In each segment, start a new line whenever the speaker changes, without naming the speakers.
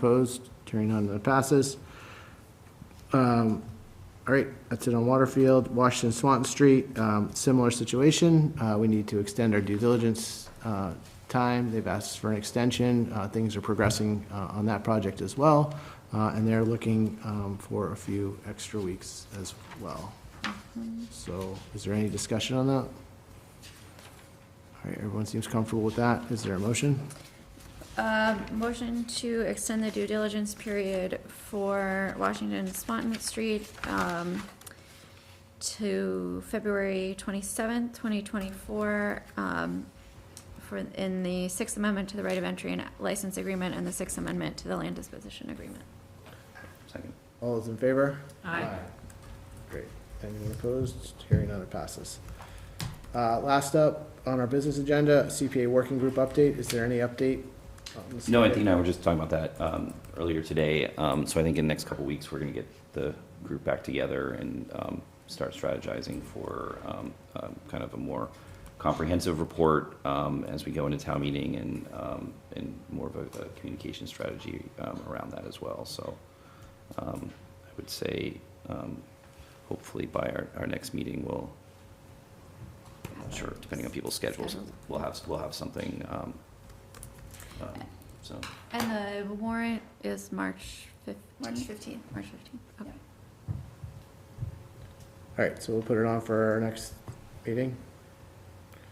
Opposed? Hearing none, that passes. Um, All right, that's it on Waterfield. Washington Swanton Street, um, similar situation. Uh, We need to extend our due diligence uh, time. They've asked for an extension. Uh, Things are progressing uh, on that project as well, Uh, and they're looking um, for a few extra weeks as well. So is there any discussion on that? All right, everyone seems comfortable with that. Is there a motion?
Um, Motion to extend the due diligence period for Washington Swanton Street um, to February 27th, 2024, um, for, in the Sixth Amendment to the Right of Entry and License Agreement and the Sixth Amendment to the Land Disposition Agreement.
Second.
All those in favor?
Aye.
Great. Anyone opposed? Hearing none, it passes. Uh, Last up on our business agenda, CPA working group update. Is there any update? on the
No,
CPA?
Anthony and I were just talking about that um, earlier today. Um, So I think in the next couple weeks, we're going to get the group back together and um, start strategizing for um, um, kind of a more comprehensive report um, as we go into town meeting and, um, and more of a a communication strategy um, around that as well. So um, I would say um, hopefully by our, our next meeting, we'll, sure, depending on people's schedules,
Schedule.
we'll have, we'll have something, um, um, so.
And the warrant is March 15th?
March 15th.
March 15th, okay.
All right, so we'll put it on for our next meeting.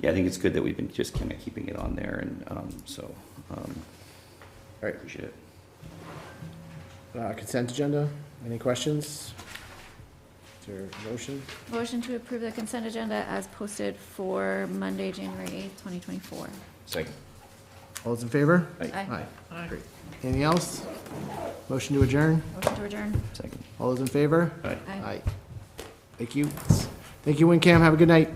Yeah, I think it's good that we've been just kind of keeping it on there and, um, so, um,
Right.
appreciate it.
Uh, Consent agenda, any questions? Is there a motion?
Motion to approve the consent agenda as posted for Monday, January 8th, 2024.
Second.
All those in favor?
Aye.
Aye.
Aye.
Great. Anything else? Motion to adjourn?
Motion to adjourn.
Second.
All those in favor?
All right.
Aye.
Thank you. Thank you, WinCam. Have a good night.